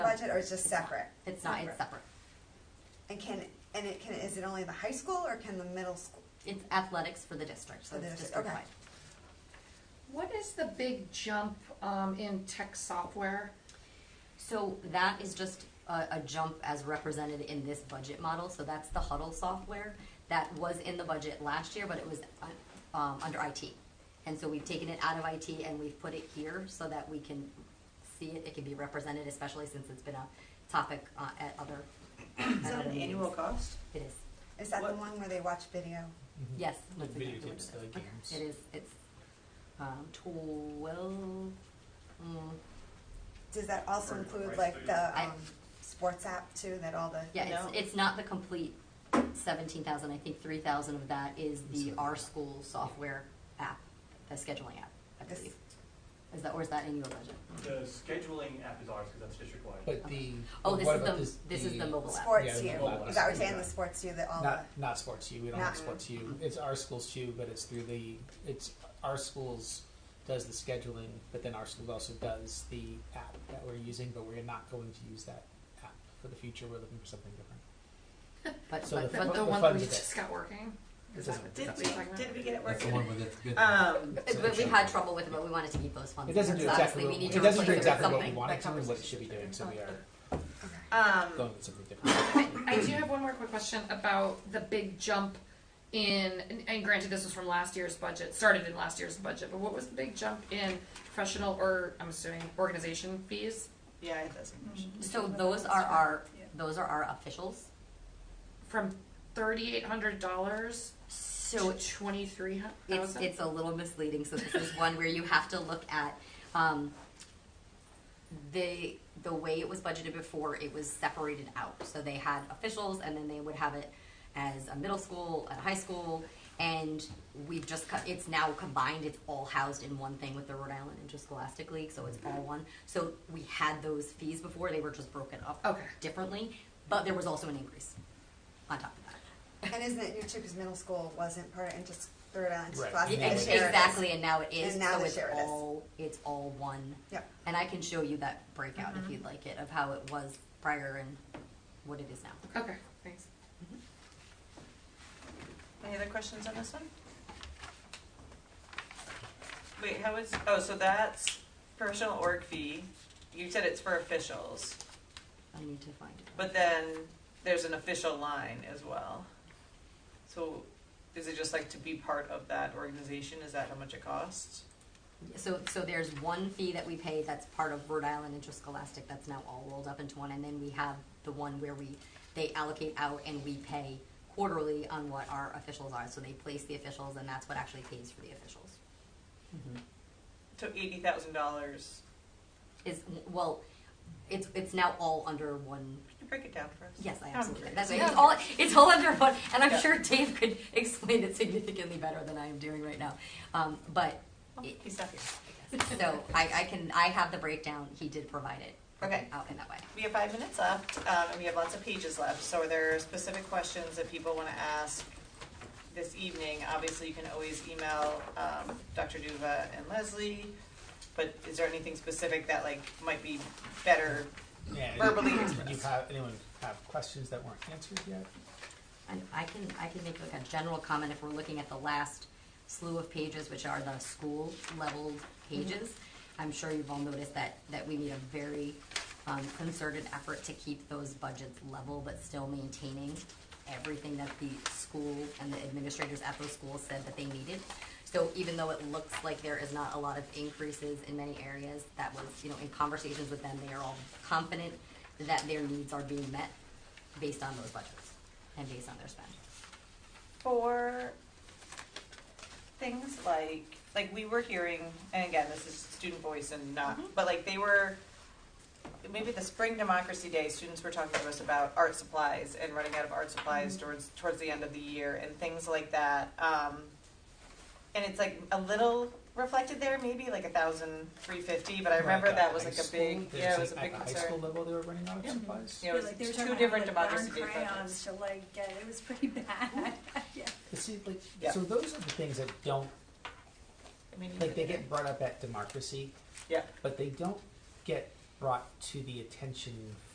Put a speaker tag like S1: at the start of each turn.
S1: budget or it's just separate?
S2: It's not, it's separate.
S1: And can, and it can, is it only the high school or can the middle school?
S2: It's athletics for the district, so
S1: For the
S2: it's
S1: district, okay.
S2: district-wide.
S3: What is the big jump um, in tech software?
S2: So that is just a, a jump as represented in this budget model, so that's the Huddle software. That was in the budget last year, but it was, uh, um, under IT. And so we've taken it out of IT and we've put it here so that we can see it, it can be represented, especially since it's been a topic, uh, at other.
S4: Is that an annual cost?
S2: It is,
S1: Is that the
S4: What-
S1: one where they watch video?
S2: yes.
S5: The
S2: that's
S5: video
S2: exactly what it is.
S5: games, the games.
S2: It is, it's, um, twelve, mm,
S1: Does that also
S6: Or
S1: include
S6: price
S1: like
S6: tag.
S1: the,
S2: I-
S1: um, sports app too, that all the?
S2: Yeah,
S4: No.
S2: it's, it's not the complete seventeen thousand, I think three thousand of that is the R School software app, the scheduling app, I
S1: Yes.
S2: believe. Is that, or is that in your budget?
S6: The scheduling app is ours because that's district wide.
S5: But the.
S2: Oh,
S5: but
S2: this
S5: what
S2: is
S5: about
S2: the, this is the mobile app.
S5: Yeah,
S1: Sports
S5: the
S1: U,
S5: mobile
S1: is that what you're
S5: app.
S1: saying, the sports U that all the?
S5: Not, not sports U, we don't
S1: Not-
S5: have sports U,
S4: Mm-hmm.
S5: it's our school's U, but it's through the, it's, our schools does the scheduling, but then our school also does the app that we're using, but we're not going to use that app for the future, we're looking for something different.
S2: But,
S5: So
S2: but,
S3: The,
S5: fu-
S2: but,
S3: the
S5: the
S3: one that
S5: funds
S3: we
S5: of it.
S3: just got working? Is
S5: It
S3: that what
S5: doesn't-
S4: Did
S3: that's
S4: we,
S3: what you're talking
S4: did
S3: about?
S4: we get it
S7: That's the one
S4: working?
S7: where that's good.
S4: Um,
S2: but we had trouble with it, but we wanted to keep those funds.
S5: It doesn't do
S2: because obviously
S5: exactly,
S2: we
S5: what-
S2: need
S5: it
S2: to
S5: doesn't do
S2: replace
S5: exactly what we
S2: something.
S5: want it
S2: That
S5: to, and what it
S2: covers-
S5: should be doing, so we are
S4: um,
S5: going with something different.
S3: I do have one more quick question about the big jump in, and- and granted, this was from last year's budget, started in last year's budget, but what was the big jump in professional or, I'm assuming, organization fees?
S4: yeah, it doesn't.
S2: So those are our, those are our officials,
S3: From thirty-eight hundred dollars
S2: so
S3: to twenty-three
S2: It's,
S3: thousand?
S2: it's a little misleading, so this is one where you have to look at, um, the, the way it was budgeted before, it was separated out. So they had officials and then they would have it as a middle school, a high school, and we've just cut, it's now combined, it's all housed in one thing with the Rhode Island Interscholastic League, so it's all one. So we had those fees before, they were just broken up
S3: Okay.
S2: differently, but there was also an increase on top of that.
S1: And isn't it new too, because middle school wasn't part of, into Third Island
S5: Right.
S1: Classic,
S5: Yeah,
S1: they
S2: Ex-
S1: share it.
S2: Exactly, and now it is,
S1: And now
S2: so
S1: they
S2: it's
S1: share it is.
S2: all, it's all one.
S1: Yep.
S2: And I can show you that breakout if you'd like it, of how it was prior and what it is now.
S3: Okay, thanks.
S4: Any other questions on this one? Wait, how is, oh, so that's professional org fee. You said it's for officials,
S2: I need to find it.
S4: but then there's an official line as well. So is it just like to be part of that organization? Is that how much it costs?
S2: So, so there's one fee that we pay that's part of Rhode Island Interscholastic, that's now all rolled up into one, and then we have the one where we, they allocate out and we pay quarterly on what our officials are, so they place the officials, and that's what actually pays for the officials.
S4: Mm-hmm. So eighty thousand dollars.
S2: Is, well, it's, it's now all under one
S4: Can you break it down for us?
S2: Yes, I
S4: I'm
S2: absolutely.
S4: curious.
S2: That's right. It's all it's all under one, and I'm
S4: Yeah.
S2: sure Dave could explain it significantly better than I am doing right now. Um, but
S4: Oh,
S2: it-
S4: He's not here.
S2: so I, I can I have the breakdown. He did provide it.
S4: Okay.
S2: Out in that way.
S4: We have five minutes left, um, and we have lots of pages left, so are there specific questions that people wanna ask this evening? Obviously, you can always email, um, Dr. Duva and Leslie, but is there anything specific that like might be better?
S5: Yeah,
S4: Verbally
S5: did you
S4: expressed.
S5: have, anyone have questions that weren't answered yet?
S2: And I can I can make like a general comment if we're looking at the last slew of pages, which are the school level pages. I'm sure you've all noticed that that we need a very um, concerted effort to keep those budgets level, but still maintaining everything that the school and the administrators at those schools said that they needed. So even though it looks like there is not a lot of increases in many areas, that was you know in conversations with them, they are all confident that their needs are being met based on those budgets and based on their spend.
S4: For things like, like we were hearing, and again, this is student voice and not,
S7: Mm-hmm.
S4: but like they were, maybe the spring democracy day, students were talking to us about art supplies and running out of art supplies
S7: Mm-hmm.
S4: towards, towards the end of the year and things like that. Um, and it's like a little reflected there, maybe like a thousand three fifty, but I remember
S5: Like, uh,
S4: that was
S5: high
S4: like a
S5: school,
S4: big,
S5: there's
S4: yeah, it
S5: a-
S4: was a big
S5: At the high school
S4: concern.
S5: level, they were running out of
S4: Yeah.
S5: supplies?
S4: Yeah, it
S7: like
S4: was
S7: they were
S4: two
S7: talking
S4: different
S7: about, like,
S4: democracy day
S7: Darn crayons
S4: projects.
S7: to like get, it was pretty bad. Yeah.
S5: But see, like,
S4: Yeah.
S5: so those are the things that don't,
S4: I mean,
S5: like, they get brought up at democracy,
S4: Yeah,
S5: but they don't get brought to the attention